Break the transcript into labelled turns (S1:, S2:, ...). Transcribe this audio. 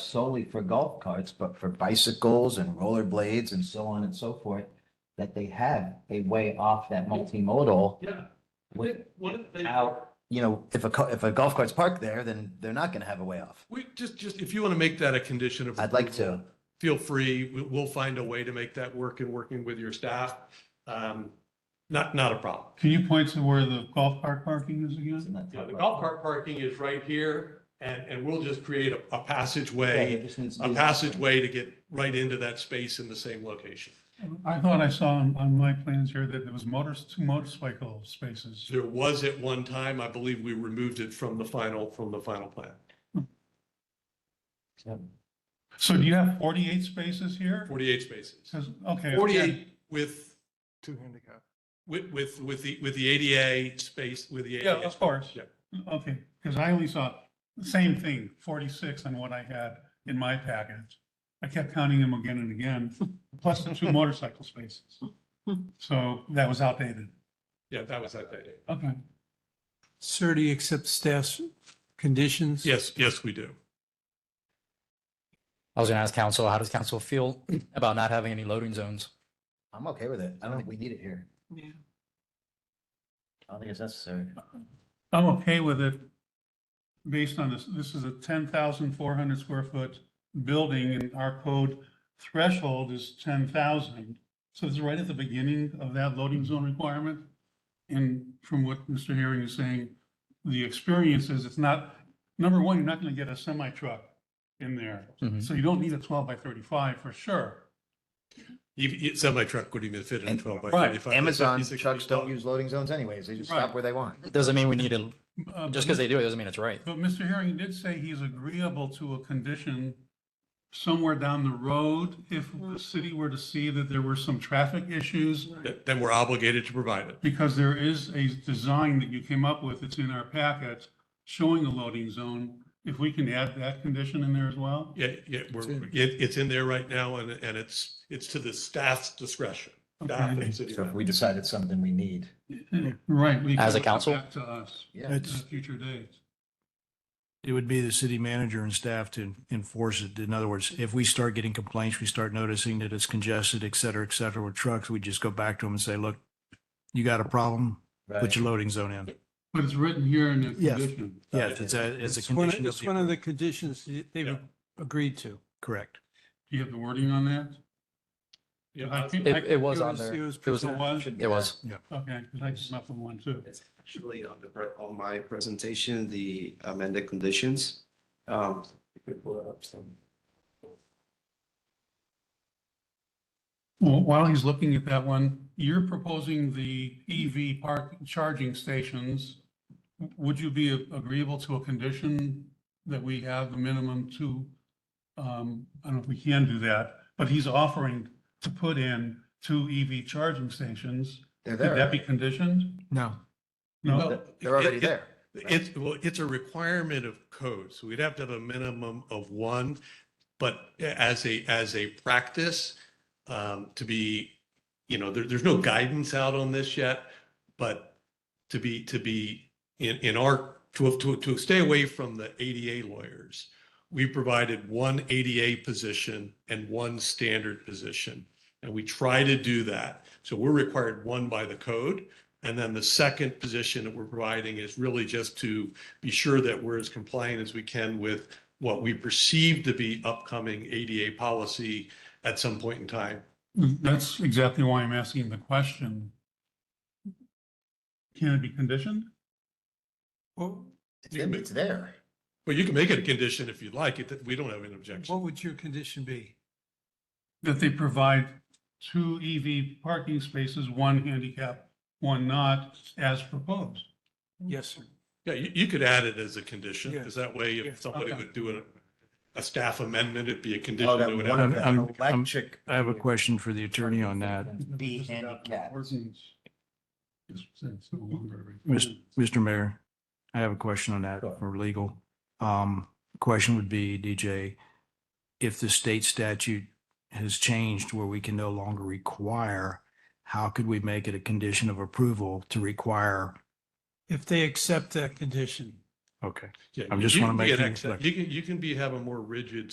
S1: solely for golf carts, but for bicycles and rollerblades and so on and so forth, that they have a way off that multimodal.
S2: Yeah.
S1: Wait.
S2: Then One of the things,
S1: Out, you know, if a, co- if a golf cart's parked there, then they're not gonna have a way off.
S2: we just, just, if you want to make that a condition of.
S1: I'd like
S2: approval,
S1: to.
S2: Feel free. We- We'll find a way to make that work in working with your staff. Um, Not, not a problem.
S3: Can you point to where the golf cart parking is
S1: Isn't
S3: again?
S1: that
S2: Yeah,
S1: tough?
S2: the golf cart parking is right here and, and we'll just create a- a
S1: Yeah, it
S2: passageway,
S1: just needs to
S2: a
S1: be-
S2: passageway to get right into that space in the same location.
S3: I thought I saw on, on my plans here that there was motors, two motorcycle spaces.
S2: There was at one time, I believe we removed it from the final, from the final plan.
S1: Yeah.
S3: So do you have forty-eight spaces here?
S2: Forty-eight spaces.
S3: Says, okay. yeah.
S2: Forty-eight with,
S4: Two handicap.
S2: with, with, with the, with the ADA space, with the
S3: Yeah,
S2: ADA.
S3: of course.
S2: Yeah.
S3: Okay, because I only saw the same thing, forty-six on what I had in my package. I kept counting them again and again, plus the two motorcycle spaces. So that was outdated.
S2: Yeah, that was that day.
S3: Okay.
S5: Sir, do you accept staff's conditions?
S2: Yes, yes, we do.
S6: I was going to ask council, how does council feel about not having any loading zones?
S1: I'm okay with it. I don't think we need it here. I don't think it's necessary.
S3: I'm okay with it based on this, this is a ten thousand four hundred square foot building and our code threshold is ten thousand. So it's right at the beginning of that loading zone requirement. And from what Mr. Herring is saying, the experience is it's not, number one, you're not gonna get a semi truck in there.
S6: Mhm.
S3: So you don't need a twelve by thirty-five for sure.
S2: You- you- Semi-truck wouldn't even fit in
S1: And-
S2: twelve by
S3: right,
S2: thirty-five.
S1: Amazon
S2: 56
S1: trucks
S2: feet
S1: don't
S2: long.
S1: use loading zones anyways. They just
S3: Right.
S1: stop where they want.
S6: Doesn't mean we need to,
S3: Uh,
S6: just because they do it doesn't mean it's right.
S3: But Mr. Herring did say he's agreeable to a condition somewhere down the road if the city were to see that there were some traffic issues,
S2: Th- Then we're obligated to provide it.
S3: because there is a design that you came up with, it's in our packet, showing a loading zone. If we can add that condition in there as well?
S2: Yeah, yeah, we're, it, it's in there right now and, and it's, it's to the staff's discretion. Staff and city
S1: So if
S2: manager.
S1: we decided something we need.
S3: Right. we can
S6: As a
S3: bring that
S6: council?
S3: Back to us
S1: Yeah.
S3: at a
S4: It's,
S3: future date.
S4: it would be the city manager and staff to enforce it. In other words, if we start getting complaints, we start noticing that it's congested, et cetera, et cetera, with trucks, we just go back to them and say, look, you got a problem,
S1: Right.
S4: put your loading zone in.
S3: But it's written here in the
S4: Yes.
S3: condition.
S4: Yeah, it's a, it's a
S5: It's one, of-
S4: condition.
S5: it's one of the conditions that they've
S2: Yeah.
S5: agreed to.
S4: Correct.
S3: Do you have the wording on that?
S2: Yeah,
S3: I think-
S2: I-
S6: It, it was
S5: It
S6: on
S5: was-
S6: there.
S5: it was
S6: It was,
S3: It was?
S6: it was.
S3: Okay, because I came up with one too.
S7: It's actually on the, pre- on my presentation, the amended conditions. Um, you could pull it up some.
S3: Well, while he's looking at that one, you're proposing the EV park charging stations. Would you be agreeable to a condition that we have the minimum two? Um, I don't know if we can do that, but he's offering to put in two EV charging stations.
S1: They're
S3: Could that be
S1: there.
S3: conditioned?
S4: No.
S3: No,
S2: Well,
S1: They're already
S2: it- it-
S1: there.
S2: It's, well, it's a requirement of code, so we'd have to have a minimum of one. But as a, as a practice, um, to be, you know, there, there's no guidance out on this yet, but to be, to be in, in our, to, to, to stay away from the ADA lawyers, we provided one ADA position and one standard position. And we try to do that. So we're required one by the code. And then the second position that we're providing is really just to be sure that we're as compliant as we can with what we perceive to be upcoming ADA policy at some point in time.
S3: that's exactly why I'm asking the question. Can it be conditioned?
S5: What,
S1: It's there.
S2: Well, you can make it a condition if you'd like, it, that we don't have an objection.
S5: what would your condition be?
S3: that they provide two EV parking spaces, one handicap, one not, as proposed.
S5: Yes, sir.
S2: Yeah, you, you could add it as a condition,
S5: Yeah.
S2: because that way
S5: Yeah,
S2: if somebody
S3: okay.
S2: would do a, a staff amendment, it'd be a condition.
S1: Oh,
S2: that would
S1: that one
S2: have-
S1: of
S4: have- I'm-
S1: them
S4: I'm-
S1: electric.
S4: I have a question for the attorney on that.
S1: Be handicapped.
S3: Mr.
S4: Mr. Mr. Mayor, I have a question on that for legal. Um, question would be, DJ, if the state statute has changed where we can no longer require, how could we make it a condition of approval to require?
S5: If they accept that condition.
S4: Okay.
S2: Yeah,
S4: I'm just
S2: you
S4: wanna
S2: can be
S4: make
S2: an
S4: things
S2: exception.
S4: clear.
S2: You can, you can be, have a more rigid